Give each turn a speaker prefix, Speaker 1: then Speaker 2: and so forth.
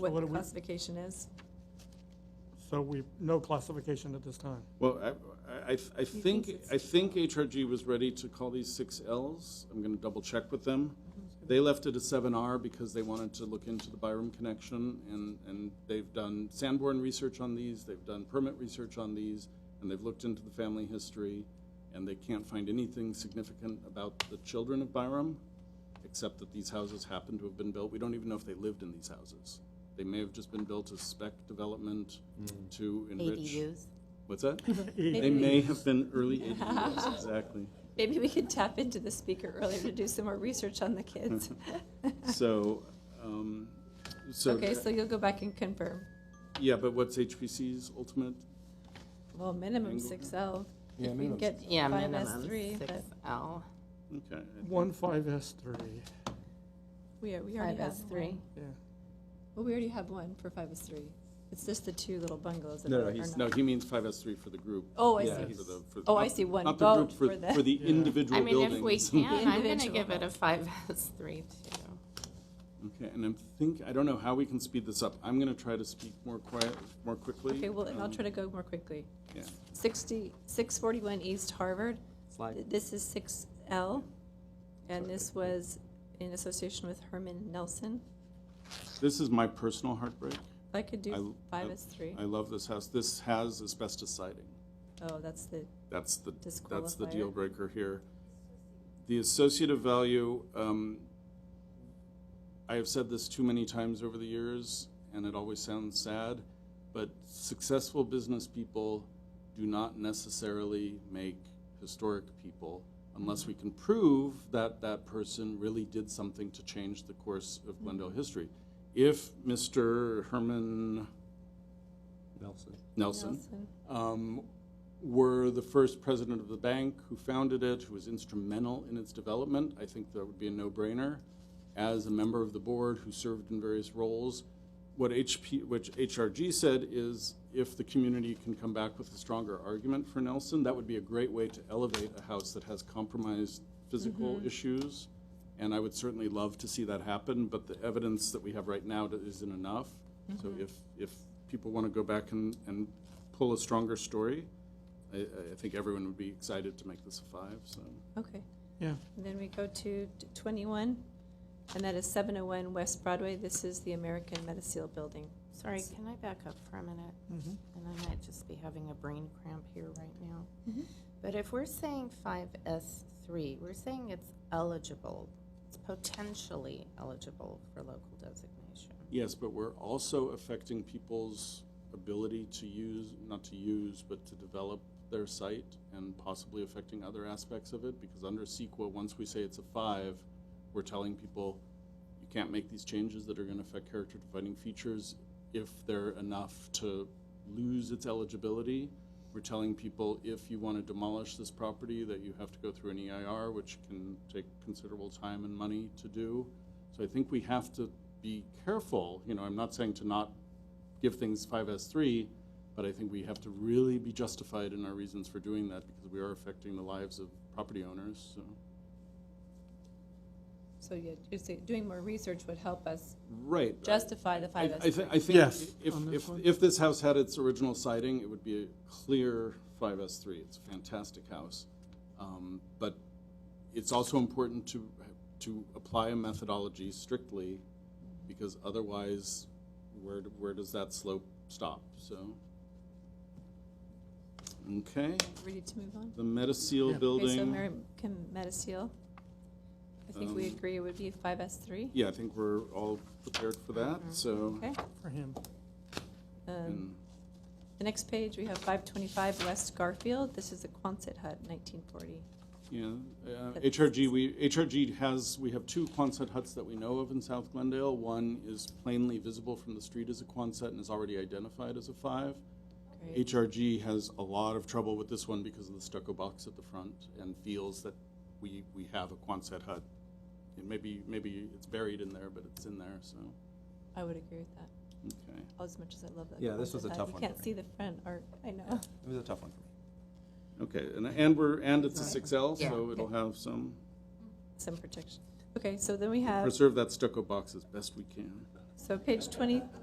Speaker 1: what
Speaker 2: what
Speaker 1: the
Speaker 2: do we-
Speaker 1: classification is?
Speaker 2: So we, no classification at this time.
Speaker 3: Well, I- I, I, I think, I think HRG was ready to call these six Ls. I'm gonna double check with them. They left it a seven R because they wanted to look into the Byram connection and, and they've done Sanborn research on these, they've done permit research on these, and they've looked into the family history, and they can't find anything significant about the children of Byram, except that these houses happen to have been built. We don't even know if they lived in these houses. They may have just been built as spec development to enrich.
Speaker 4: ADUs.
Speaker 3: What's that?
Speaker 2: E,
Speaker 3: They may have been early 80s, exactly.
Speaker 1: Maybe we could tap into the speaker earlier to do some more research
Speaker 3: Hmm.
Speaker 1: on the kids.
Speaker 3: So, um, so,
Speaker 1: Okay, so you'll go back and confirm.
Speaker 3: yeah, but what's HPC's ultimate?
Speaker 1: Well, minimum
Speaker 3: Angle.
Speaker 1: six L.
Speaker 5: Yeah,
Speaker 1: If we can
Speaker 5: minimum
Speaker 1: get
Speaker 4: Yeah,
Speaker 1: five S
Speaker 4: minimum
Speaker 1: three, but
Speaker 4: 6L.
Speaker 3: Okay. I think-
Speaker 2: one five S three,
Speaker 1: we are, we already have.
Speaker 4: 5S3.
Speaker 1: one.
Speaker 2: yeah.
Speaker 1: Well, we already have one for five S three. It's just the two little bungalows that
Speaker 3: No,
Speaker 1: are
Speaker 3: no,
Speaker 1: are
Speaker 3: he's, no,
Speaker 1: not.
Speaker 3: he means 5S3 for the group.
Speaker 1: Oh, I
Speaker 3: Yeah,
Speaker 1: see.
Speaker 3: for the- for the-
Speaker 1: Oh, I
Speaker 3: not-
Speaker 1: see, one
Speaker 3: not the group
Speaker 1: vote for the.
Speaker 3: For the
Speaker 2: Yeah.
Speaker 4: I
Speaker 3: individual
Speaker 4: mean, if we
Speaker 3: buildings.
Speaker 4: can, I'm going to
Speaker 1: Individual.
Speaker 4: give it a 5S3 too.
Speaker 3: Okay, and I'm think, I don't know how we can speed this up. I'm going to try to speak more quiet, more quickly.
Speaker 1: Okay, well, I'll
Speaker 3: um,
Speaker 1: try to go more quickly.
Speaker 3: Yeah.
Speaker 1: Sixty, six forty-one East Harvard,
Speaker 5: Slide.
Speaker 1: Th- this is six L, and this was in association with Herman Nelson.
Speaker 3: This is my personal heartbreak.
Speaker 1: If I could do
Speaker 3: I-
Speaker 1: five
Speaker 3: I-
Speaker 1: as three.
Speaker 3: I love this house. This has asbestos siding.
Speaker 1: Oh, that's the,
Speaker 3: That's the, that's the
Speaker 1: Disqualifier.
Speaker 3: deal breaker here. The associative value, um, I have said this too many times over the years, and it always sounds sad, but successful business people do not necessarily make historic people unless we can prove that that person really did something to change the course of Glendale history. If Mr. Herman
Speaker 5: Nelson.
Speaker 3: Nelson
Speaker 1: Nelson.
Speaker 3: um, were the first president of the bank who founded it, who was instrumental in its development. I think that would be a no brainer. As a member of the board who served in various roles, what HP, which HRG said is if the community can come back with a stronger argument for Nelson, that would be a great way to elevate a house that has compromised physical issues. And I would certainly love to see that happen, but the evidence that we have right now that isn't enough. So if, if people want to go back and, and pull a stronger story, I, I think everyone would be excited to make this a five, so.
Speaker 1: Okay.
Speaker 2: Yeah.
Speaker 1: And then we go to t- 21, and that is 701 West Broadway. This is the American Metasil Building.
Speaker 4: Sorry, can I back up for a minute?
Speaker 2: Mhm.
Speaker 4: And I might just be having a brain cramp here right now. But if we're saying 5S3, we're saying it's eligible, it's potentially eligible for local designation.
Speaker 3: Yes, but we're also affecting people's ability to use, not to use, but to develop their site and possibly affecting other aspects of it, because under CEQA, once we say it's a five, we're telling people, you can't make these changes that are gonna affect character defining features if they're enough to lose its eligibility. We're telling people, if you wanna demolish this property, that you have to go through an EIR, which can take considerable time and money to do. So I think we have to be careful, you know, I'm not saying to not give things 5S3, but I think we have to really be justified in our reasons for doing that because we are affecting the lives of property owners, so.
Speaker 1: So you- you're saying doing more research would help us
Speaker 3: Right.
Speaker 1: justify the
Speaker 3: I, I
Speaker 1: 5S.
Speaker 3: thi- I think
Speaker 2: Yes,
Speaker 3: if,
Speaker 2: on this
Speaker 3: if,
Speaker 2: one.
Speaker 3: if this house had its original siding, it would be a clear 5S3. It's a fantastic house. Um, But it's also important to, to apply a methodology strictly because otherwise, where, do- where does that slope stop? So, okay,
Speaker 1: Ready to move on?
Speaker 3: the Metasil
Speaker 2: Yeah.
Speaker 3: building.
Speaker 1: Okay, so American Metasil. I think we
Speaker 3: Um,
Speaker 1: agree it would be 5S3.
Speaker 3: Yeah, I think we're all prepared for that,
Speaker 2: Mm-hmm.
Speaker 3: so.
Speaker 1: Okay.
Speaker 2: for him.
Speaker 1: Um,
Speaker 3: and-
Speaker 1: The next page, we have 525 West Garfield. This is the Quonset hut, 1940.
Speaker 3: Yeah, uh,
Speaker 1: But-
Speaker 3: HRG, we, HRG has, we have two Quonset huts that we know of in South Glendale. One is plainly visible from the street as a Quonset and is already identified as a five.
Speaker 1: Great.
Speaker 3: HRG has a lot of trouble with this one because of the stucco box at the front and feels that we, we have a Quonset hut. And maybe, maybe it's buried in there, but it's in there, so,
Speaker 1: I would agree with that,
Speaker 3: okay.
Speaker 1: as much as I love that.
Speaker 5: Yeah, this was
Speaker 1: Quonset
Speaker 5: a
Speaker 1: hut.
Speaker 5: tough one
Speaker 1: You
Speaker 5: for
Speaker 1: can't
Speaker 5: me.
Speaker 1: see the front art, I know.
Speaker 5: It was a tough one for me.
Speaker 3: Okay, and, and we're, and it's a six L, so
Speaker 4: Yeah.
Speaker 3: it'll have some,
Speaker 1: Some protection. Okay, so then we have,
Speaker 3: preserve that stucco box as best we can.
Speaker 1: so page 20,